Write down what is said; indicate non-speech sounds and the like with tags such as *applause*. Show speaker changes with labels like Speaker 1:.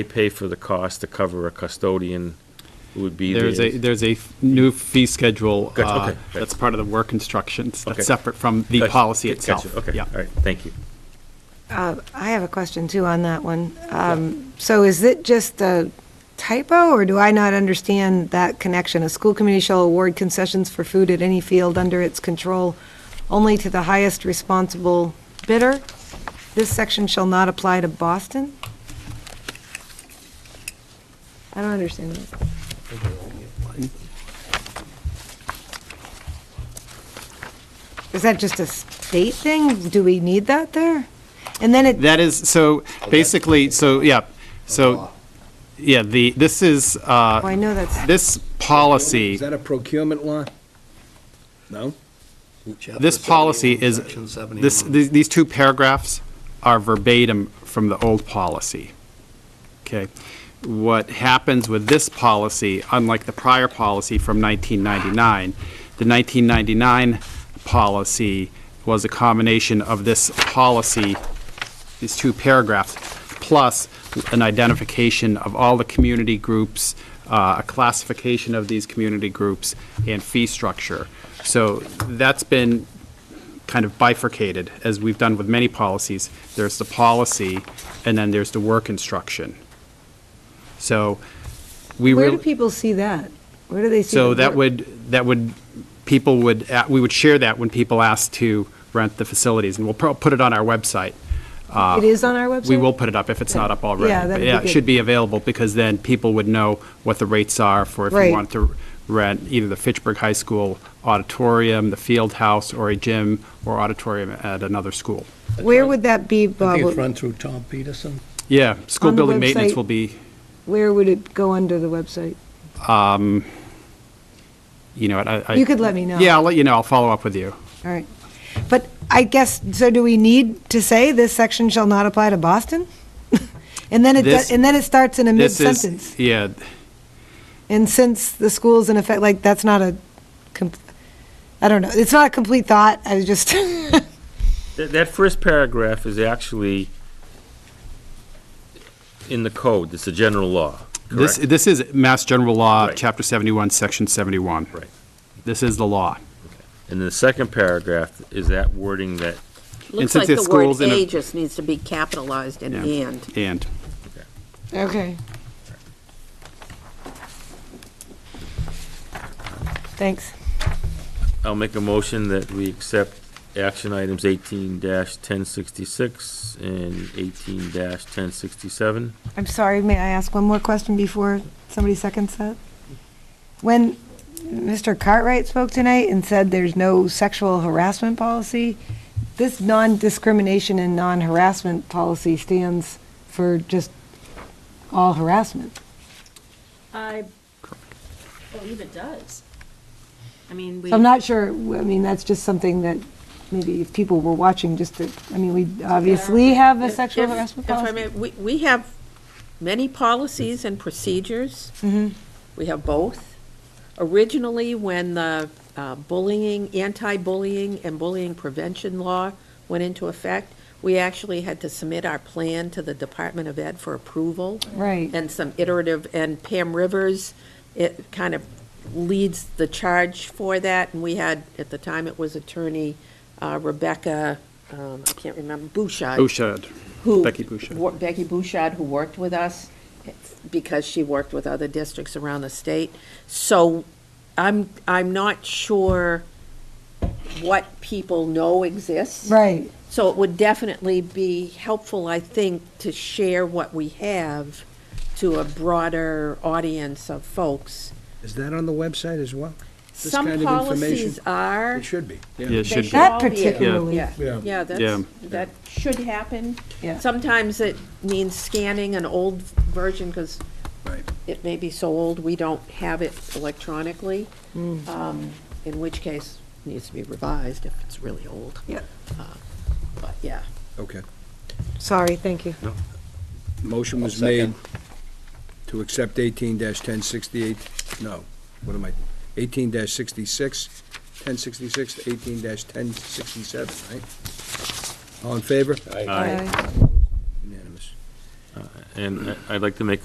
Speaker 1: They pay for the cost to cover a custodian who would be there.
Speaker 2: There's a, there's a f- new fee schedule.
Speaker 1: Gotcha,
Speaker 2: uh,
Speaker 1: okay, gotcha.
Speaker 2: That's part of the work instructions.
Speaker 1: Okay.
Speaker 2: That's separate from the policy itself.
Speaker 1: Okay,
Speaker 2: Yeah.
Speaker 1: all right, thank you.
Speaker 3: Uh, I have a question too on that one. Um, So is it just a typo, or do I not understand that connection? A school committee shall award concessions for food at any field under its control only to the highest responsible bidder? This section shall not apply to Boston? I don't understand that. Is that just a state thing? Do we need that there? And then it
Speaker 2: That is, so basically, so, yeah, so, yeah, the, this is,
Speaker 3: Oh,
Speaker 2: uh,
Speaker 3: I know that's,
Speaker 2: this policy.
Speaker 4: Is that a procurement law? No?
Speaker 2: This policy is, this, these these two paragraphs are verbatim from the old policy. Okay? What happens with this policy, unlike the prior policy from 1999, the 1999 policy was a combination of this policy, these two paragraphs, plus an identification of all the community groups, uh, a classification of these community groups, and fee structure. So that's been kind of bifurcated, as we've done with many policies. There's the policy, and then there's the work instruction. So we
Speaker 3: where do
Speaker 2: really,
Speaker 3: people see that? Where do they see?
Speaker 2: so
Speaker 3: the
Speaker 2: that
Speaker 3: work?
Speaker 2: would, that would, people would, a- we would share that when people ask to rent the facilities, and we'll pro- put it on our website. Uh,
Speaker 3: It is on our website?
Speaker 2: We will put it up if it's not up already.
Speaker 3: Yeah,
Speaker 2: But
Speaker 3: that'd be
Speaker 2: Yeah, it
Speaker 3: good.
Speaker 2: should be available, because then people would know what the rates are for if
Speaker 3: Right.
Speaker 2: you want to rent either the Fitchburg High School auditorium, the field house, or a gym, or auditorium at another school.
Speaker 3: Where would that be,
Speaker 5: I think it's
Speaker 3: Bob?
Speaker 5: run through Tom Peterson.
Speaker 2: Yeah, school
Speaker 3: On the
Speaker 2: building maintenance
Speaker 3: website.
Speaker 2: will be,
Speaker 3: Where would it go under the website?
Speaker 2: um, you know, I. I-
Speaker 3: You could let me know.
Speaker 2: Yeah, I'll let you know, I'll follow up with you.
Speaker 3: All right. But I guess, so do we need to say this section shall not apply to Boston? *laughs* And then it,
Speaker 2: This-
Speaker 3: does- and then it starts in a
Speaker 2: This is-
Speaker 3: mid-sentence.
Speaker 2: Yeah,
Speaker 3: And since the school's in effect, like, that's not a, com- I don't know, it's not a complete thought, I was just, *laughs*
Speaker 1: That, that first paragraph is actually in the code, it's a general law,
Speaker 2: this,
Speaker 1: correct?
Speaker 2: this is Mass General Law,
Speaker 1: Right.
Speaker 2: Chapter 71, Section 71.
Speaker 1: Right.
Speaker 2: This is the law.
Speaker 1: And the second paragraph is that wording that,
Speaker 2: And
Speaker 6: Looks
Speaker 2: since
Speaker 6: like
Speaker 2: it's
Speaker 6: the word
Speaker 2: schools in a-
Speaker 6: "a" just needs to be capitalized in
Speaker 2: Yeah.
Speaker 6: "and."
Speaker 2: And,
Speaker 3: okay. Thanks.
Speaker 1: I'll make a motion that we accept action items eighteen ten sixty-six and eighteen ten sixty-seven.
Speaker 3: I'm sorry, may I ask one more question before somebody seconds that? When Mr. Cartwright spoke tonight and said there's no sexual harassment policy, this non-discrimination and non-harassment policy stands for just all harassment.
Speaker 7: I believe it does. I mean, we.
Speaker 3: So I'm not sure, I mean, that's just something that maybe if people were watching, just to, I mean, we obviously have a
Speaker 6: If-
Speaker 3: sexual
Speaker 6: if-
Speaker 3: harassment
Speaker 6: if I
Speaker 3: policy.
Speaker 6: may, We, we have many policies and procedures.
Speaker 3: Mm-hmm.
Speaker 6: We have both. Originally, when the uh, bullying, anti-bullying and bullying prevention law went into effect, we actually had to submit our plan to the Department of Ed for approval.
Speaker 3: Right.
Speaker 6: And some iterative, and Pam Rivers, it kind of leads the charge for that. And we had, at the time, it was attorney uh, Rebecca, um, I can't remember, Bouchard
Speaker 2: Bouchard.
Speaker 6: who.
Speaker 2: Becky Bouchard.
Speaker 6: wor- Becky Bouchard, who worked with us, because she worked with other districts around the state. So I'm, I'm not sure what people know exists.
Speaker 3: Right.
Speaker 6: So it would definitely be helpful, I think, to share what we have to a broader audience of folks.
Speaker 4: Is that on the website as well? This kind
Speaker 6: Some
Speaker 4: of
Speaker 6: policies
Speaker 4: information-
Speaker 6: are.
Speaker 4: It should be.
Speaker 2: Yeah, it
Speaker 6: They
Speaker 2: should be.
Speaker 3: That
Speaker 6: all be able-
Speaker 3: particularly.
Speaker 6: Yeah,
Speaker 4: Yeah.
Speaker 6: yeah,
Speaker 2: Yeah.
Speaker 6: that's, that should happen.
Speaker 3: Yeah.
Speaker 6: Sometimes it means scanning an old version, because
Speaker 4: Right.
Speaker 6: it may be so old, we don't have it electronically,
Speaker 3: Hmm.
Speaker 6: um, in which case it needs to be revised if it's really old.
Speaker 3: Yeah.
Speaker 6: Uh, But, yeah.
Speaker 4: Okay.
Speaker 3: Sorry, thank you.
Speaker 4: Motion was made to accept eighteen ten sixty-eight, no, what am I, eighteen sixty-six, ten sixty-six to eighteen ten sixty-seven, right? All in favor?
Speaker 3: Aye.
Speaker 4: Unanimous.
Speaker 1: And I- I'd like to make